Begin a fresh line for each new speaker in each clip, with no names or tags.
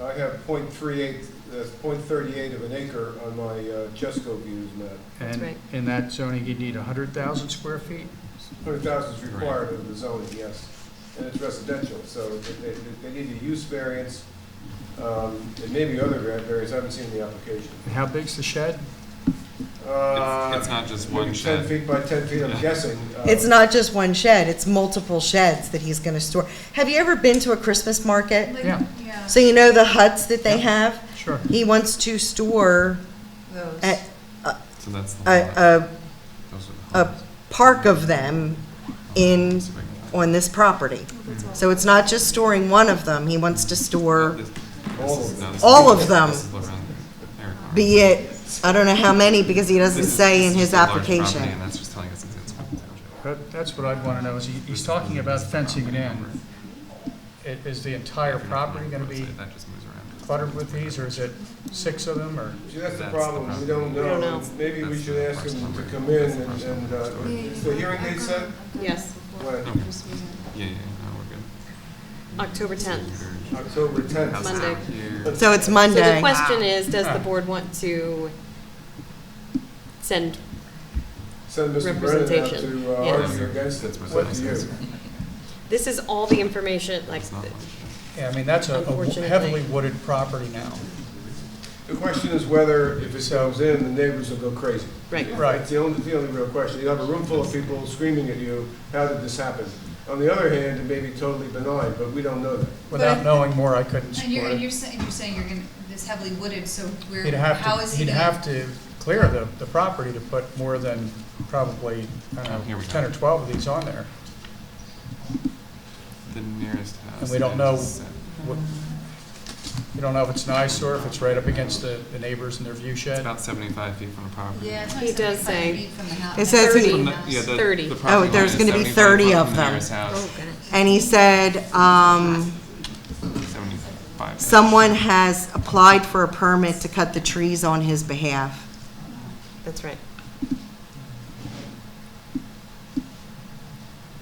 I have .38, that's .38 of an acre on my uh, Jesco views map.
And
right.
in that zoning, you'd need 100,000 square feet?
Hundred thousand is required of the zoning, yes, and it's residential, so they, they- they need a use variance, um, and maybe other vari- variance, I haven't seen the application.
And how big's the shed?
Uh,
It's it's not just one
maybe Ten
shed.
feet by ten feet, I'm
Yeah.
guessing. uh,
It's not just one shed, it's multiple sheds that he's gonna store. Have you ever been to a Christmas market?
Like,
Yeah.
Yeah.
So you know the huts that they
Yeah.
have?
Sure.
He wants to store
Those.
a,
So that's the
a,
lot.
a
Those
a
are the homes.
park of them in,
It's a big lot.
on this property.
That's all.
So it's not just storing one of them, he wants to store,
This-
All
this
of
is- no, this
all
is-
of them.
this is what around there.
be it, I don't know how many, because he doesn't
This is-
say
this
in
is
his
just a large property,
application.
And that's just telling us it's it's one township.
That- That's what I'd want to know, is he- he's talking about fencing it in. I- Is the entire property going to be
That just moves around.
cluttered with these, or is it six of them, or?
See, that's the
That's the
problem, we
problem.
don't
We don't
know,
know.
maybe we
That's
should
the
ask
first
them to
one.
come in
That's the
and,
first one.
and, uh,
Yeah, yeah,
is the hearing date set?
Yes,
When?
Okay. Oh. Yeah, yeah, no, we're good.
October 10th,
October
How's
tenth.
that
Monday.
here?
So it's
So the
Monday.
question is, does the board want to send,
Send Mr. Brennan out
Representation,
to uh,
yeah.
argue against it,
That's what
what
that
do you?
says.
this is all the information, like,
It's not one.
Yeah, I mean, that's a a
Unfortunately.
heavily wooded property now.
The question is whether, if it goes in, the neighbors will go crazy.
right,
Right.
That's the only, the only real question. You have a room full of people screaming at you, how did this happen? On the other hand, it may be totally benign, but we don't know that.
Without
But-
knowing more, I couldn't
And you're,
support
and you're
it.
saying, you're saying you're gonna, this heavily wooded, so we're,
He'd
how
have
is
to,
he
he'd
gonna?
have to clear the, the property to put more than probably, I don't
Here
know,
we go.
10 or 12 of these on there.
The nearest house.
And we don't
is
know-
set-
What- You don't know if it's an eyesore, if it's right up against the the neighbors and their view
It's
shed.
about 75 feet from the property.
Yeah, it's
He
only
does say-
seventy-five feet from the house.
It says he-
From
30.
the- yeah, the- the
30.
property line
Oh, there's
is
gonna be
75
30
feet
of
from the
them.
nearest house,
And he said, um,
75.
someone has applied for a permit to cut the trees on his behalf.
that's right.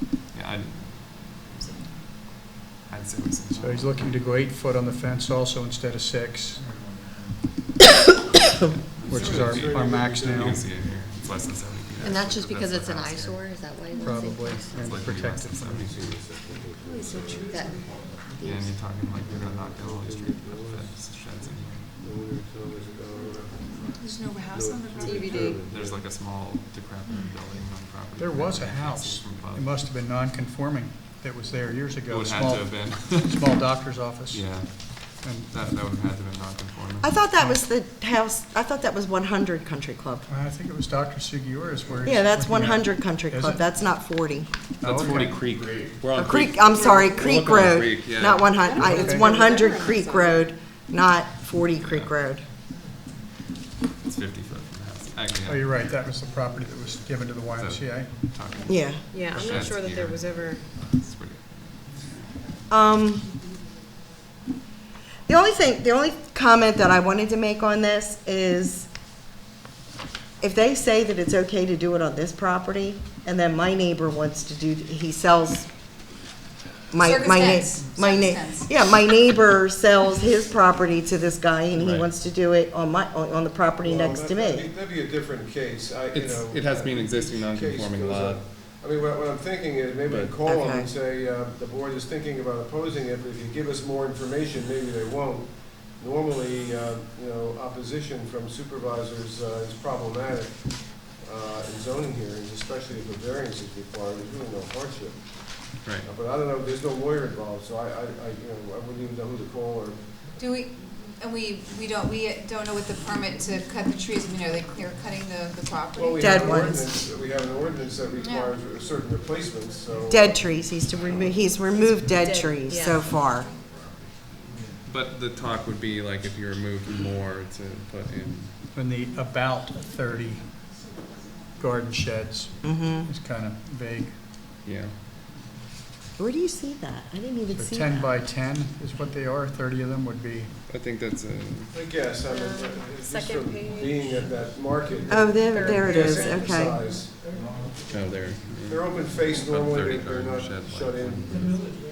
Yeah, I'd, I'd say we send it
So
on.
he's looking to go eight foot on the fence also instead of six, which is our, our max
You
now,
can see it here, it's less than 70 feet.
And that's
Actually,
just because
what
it's an
the house here.
eyesore, is that why? it's-
probably,
It's
and
like maybe less
protected
than
from
70 feet.
That-
Yeah, and you're talking like you're gonna knock down all these trees, but that's sheds in here.
There's no house on the property.
DVD.
There's like a small decrepit
Hmm.
building on the property.
There was a
You can see
house.
it from above.
It must have been non-conforming that was there years
It
ago,
would have to
small,
have been,
small doctor's office.
yeah,
And
that, that would have had to have been non-conforming.
I thought that was the house, I thought that was 100 Country Club.
uh, I think it was Dr. Sugiura's where he's.
Yeah, that's
looking at-
100 Country
Is
Club,
it?
that's not 40.
That's
Oh,
Forty
okay.
Creek. We're on
Creek, I'm sorry,
We're
Creek
looking at
Road,
Creek, yeah.
not 100, I-
Okay.
it's 100 Creek Road, not 40 Creek
Yeah.
Road.
It's fifty foot from the house.
Oh,
Actually,
you're
yeah.
right, that was the property that was given to the YMCA.
Talking-
Yeah.
Yeah, I'm not
Sheds
sure that there
here.
was ever,
It's pretty-
Um, the only thing, the only comment that I wanted to make on this is if they say that it's okay to do it on this property, and then my neighbor wants to do, he sells my, my neighbor,
Circumstance.
my neighbor,
Circumstance.
yeah, my neighbor sells his property to this guy, and he
Right.
wants to do it on my, on on the property
Well,
next to
that- that'd
me.
be- That'd be a different case, I, you
It's-
know.
it has to be an
uh,
existing
each case
non-conforming
goes
lot.
up. I mean, what, what I'm thinking is maybe we
But-
call them
Okay.
and say, uh, the board is thinking about opposing it, but if you give us more information, maybe they won't. Normally, uh, you know, opposition from supervisors uh, is problematic uh, in zoning hearings, especially if a variance is required, there's really no hardship.
Right.
Uh, But I don't know, there's no lawyer involved, so I, I, I, you know, I wouldn't even know who to call or
Do we, and we, we don't, we don't know what the permit to cut the trees, I mean, are they clear cutting the, the property?
Well, we
Dead
have an
ones.
ordinance- We have an ordinance that requires certain replacements, so.
Dead trees, he's to remove, he's removed dead
Dead,
trees
yeah.
so far.
But the talk would be like if you removed more to put in.
In the about 30 garden sheds.
hmm
It's kind of vague.
Yeah.
Where do you see that? I didn't even
So
see
10
that.
by 10 is what they are, 30 of them would be.
I think that's a.
I guess, I mean,
Um,
just
second
from
page.
being at that market.
Oh, there, there it is,
Yes,
okay.
size.
Oh, there.
They're open faced
About
normally,
30
they're they're not
garden shed
shut
length.
in.